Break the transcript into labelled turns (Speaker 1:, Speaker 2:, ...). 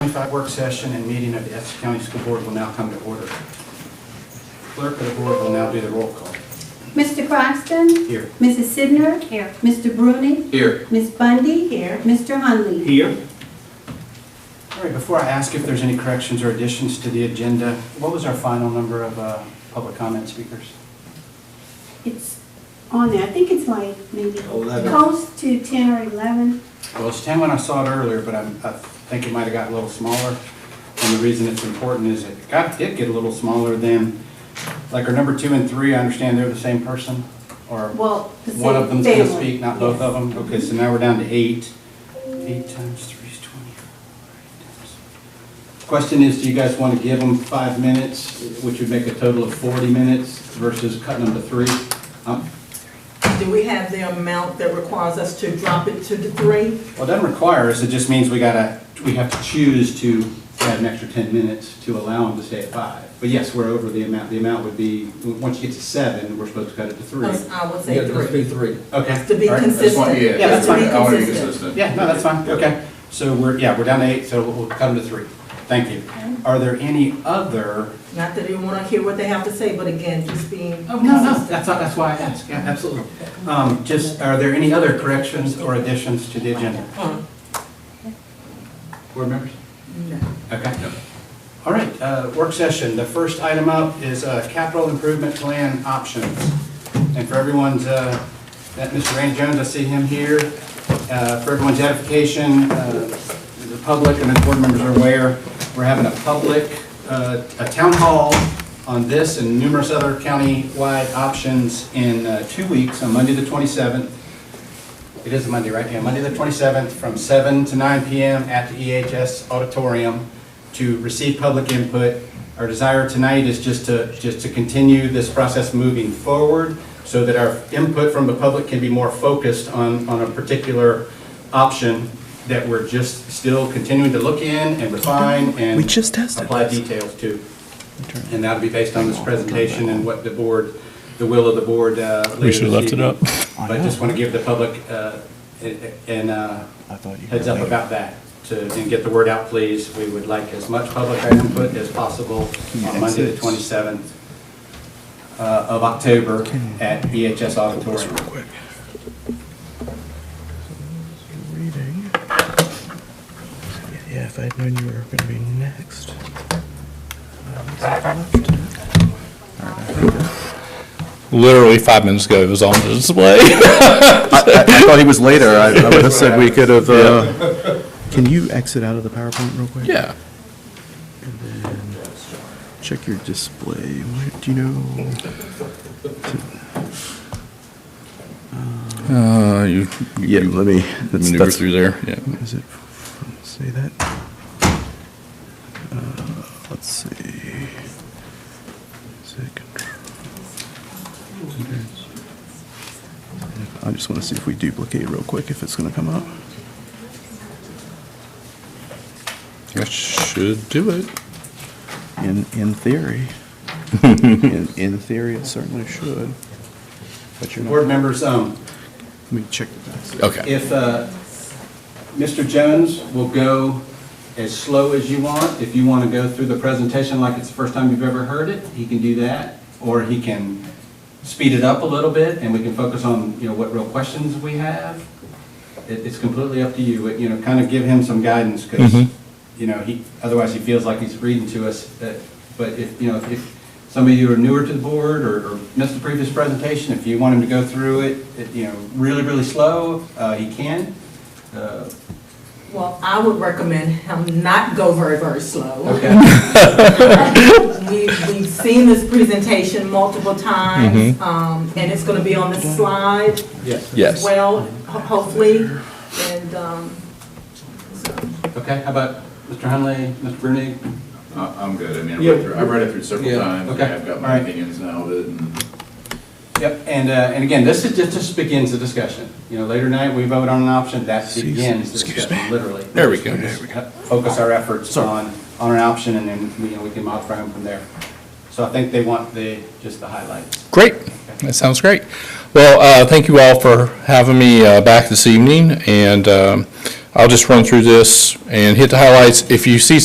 Speaker 1: 25 work session and meeting of the Essex County School Board will now come to order. Clerk of the Board will now do the roll call.
Speaker 2: Mr. Croxton?
Speaker 1: Here.
Speaker 2: Mrs. Sidner? Here. Mr. Bruning?
Speaker 1: Here.
Speaker 2: Ms. Bundy? Here. Mr. Hunley?
Speaker 1: Here. All right, before I ask if there's any corrections or additions to the agenda, what was our final number of uh, public comment speakers?
Speaker 2: It's on there, I think it's like maybe
Speaker 3: Eleven.
Speaker 2: close to 10 or 11.
Speaker 1: Well, it's 10 when I saw it earlier, but I'm- I think it might have got a little smaller. And the reason it's important is it got, did get a little smaller than, like, our number two and three, I understand they're the same person? Or
Speaker 2: Well, the
Speaker 1: One of
Speaker 2: same
Speaker 1: them's gonna
Speaker 2: family.
Speaker 1: speak, not both
Speaker 2: Yes.
Speaker 1: of them? Okay, so now we're down to eight. Eight times three is twenty. Question is, do you guys want to give them five minutes, which would make a total of forty minutes versus cutting them to three? Um,
Speaker 3: Do we have the amount that requires us to drop it to the three?
Speaker 1: Well, it doesn't require us, it just means we gotta, we have to choose to add an extra ten minutes to allow them to stay at five. But yes, we're over the amount, the amount would be, once you get to seven, we're supposed to cut it to
Speaker 2: Oh,
Speaker 1: three.
Speaker 3: Us- I would
Speaker 4: Yeah,
Speaker 3: say
Speaker 4: there must be
Speaker 3: three.
Speaker 4: three.
Speaker 1: Okay.
Speaker 3: To be
Speaker 1: all right.
Speaker 3: consistent.
Speaker 5: That's fine, yeah.
Speaker 1: Yeah, that's
Speaker 3: To be
Speaker 5: I want to be
Speaker 3: consistent.
Speaker 5: consistent.
Speaker 1: Yeah, no, that's fine, okay. So we're, yeah, we're down to eight, so we'll cut them to three. Thank you. Are there any other?
Speaker 3: Not that you want to hear what they have to say, but again, just being consistent.
Speaker 1: Oh, That's, that's why I asked, yeah, absolutely. Um, just, are there any other corrections or additions to the agenda? Uh-huh. Board members?
Speaker 3: No.
Speaker 1: Okay. All right, uh, work session. The first item up is uh, capital improvement plan options. And for everyone's, uh, that Mr. Randy Jones, I see him here. Uh, For everyone's edification, uh, the public and the board members are aware, we're having a public, uh, a town hall on this and numerous other county-wide options in uh, two weeks, on Monday, the 27th. It is a Monday, right? Yeah, Monday the 27th, from 7 to 9 PM at the EHS Auditorium to receive public input. Our desire tonight is just to, just to continue this process moving forward so that our input from the public can be more focused on, on a particular option that we're just still continuing to look in and refine and
Speaker 6: We just tested
Speaker 1: apply
Speaker 6: this.
Speaker 1: details to. And that'll be based on this presentation and what the board, the will of the board uh, later
Speaker 7: We should have
Speaker 1: this
Speaker 7: left it
Speaker 1: evening.
Speaker 7: up.
Speaker 1: But I just want to give the public uh, an uh,
Speaker 6: I thought you
Speaker 1: heads
Speaker 6: were
Speaker 1: up
Speaker 6: later.
Speaker 1: about that, to, and get the word out, please. We would like as much public input as possible on Monday, the 27th uh, of October at EHS Auditorium.
Speaker 6: quick. Reading. Yeah, if I had known you were going to be next.
Speaker 7: Literally five minutes ago, it was on display.
Speaker 8: I, I thought he was later. I, I would have said we could have, uh,
Speaker 6: Can you exit out of the PowerPoint real quick?
Speaker 7: Yeah.
Speaker 6: Check your display. Where- Do you know?
Speaker 7: Uh, you,
Speaker 8: yeah, let me, that's,
Speaker 7: maneuver
Speaker 8: that's,
Speaker 7: through there, yeah.
Speaker 6: Is it from, say that? Uh, Let's see. Is it control? I just want to see if we duplicate real quick, if it's going to come up.
Speaker 7: That should do it.
Speaker 6: In, in theory. In, in theory, it certainly should. But you're
Speaker 1: Board
Speaker 6: not,
Speaker 1: members, um,
Speaker 6: let me check the back.
Speaker 7: Okay.
Speaker 1: if uh, Mr. Jones will go as slow as you want, if you want to go through the presentation like it's the first time you've ever heard it, he can do that, or he can speed it up a little bit, and we can focus on, you know, what real questions we have. It- It's completely up to you, It, you know, kind of give him some guidance, because,
Speaker 7: Mhm.
Speaker 1: you know, he, otherwise he feels like he's reading to us. uh, But if, you know, if- if some of you are newer to the board or or missed the previous presentation, if you want him to go through it, it, you know, really, really slow, uh, he can. Uh,
Speaker 3: Well, I would recommend him not go very, very slow.
Speaker 1: Okay,
Speaker 3: We- We've seen this presentation multiple times, um, and it's going to be on the slide
Speaker 1: yes.
Speaker 3: as
Speaker 8: yes.
Speaker 3: well, ho- hopefully. And um,
Speaker 1: Okay, how about Mr. Hunley, Mr. Brunig?
Speaker 5: I- I'm good, I mean, I've
Speaker 1: Yeah.
Speaker 5: read through- I've read it through several
Speaker 8: Yeah.
Speaker 5: times, and
Speaker 1: Okay.
Speaker 5: I've got
Speaker 1: All
Speaker 5: my
Speaker 1: right.
Speaker 5: opinions now of it, and
Speaker 1: Yep, and, uh, and again, this is, just just begins the discussion. You know, later tonight, we vote on an option, that
Speaker 6: Excuse-
Speaker 1: begins the
Speaker 6: excuse
Speaker 1: discussion, literally.
Speaker 7: There we go.
Speaker 1: Just Focus our efforts on, on an option, and then, you know, we can modify them from there. So I think they want the, just the highlights.
Speaker 7: Great. That sounds great. Well, uh, thank you all for having me uh, back this evening, and um, I'll just run through this and hit the highlights. If you see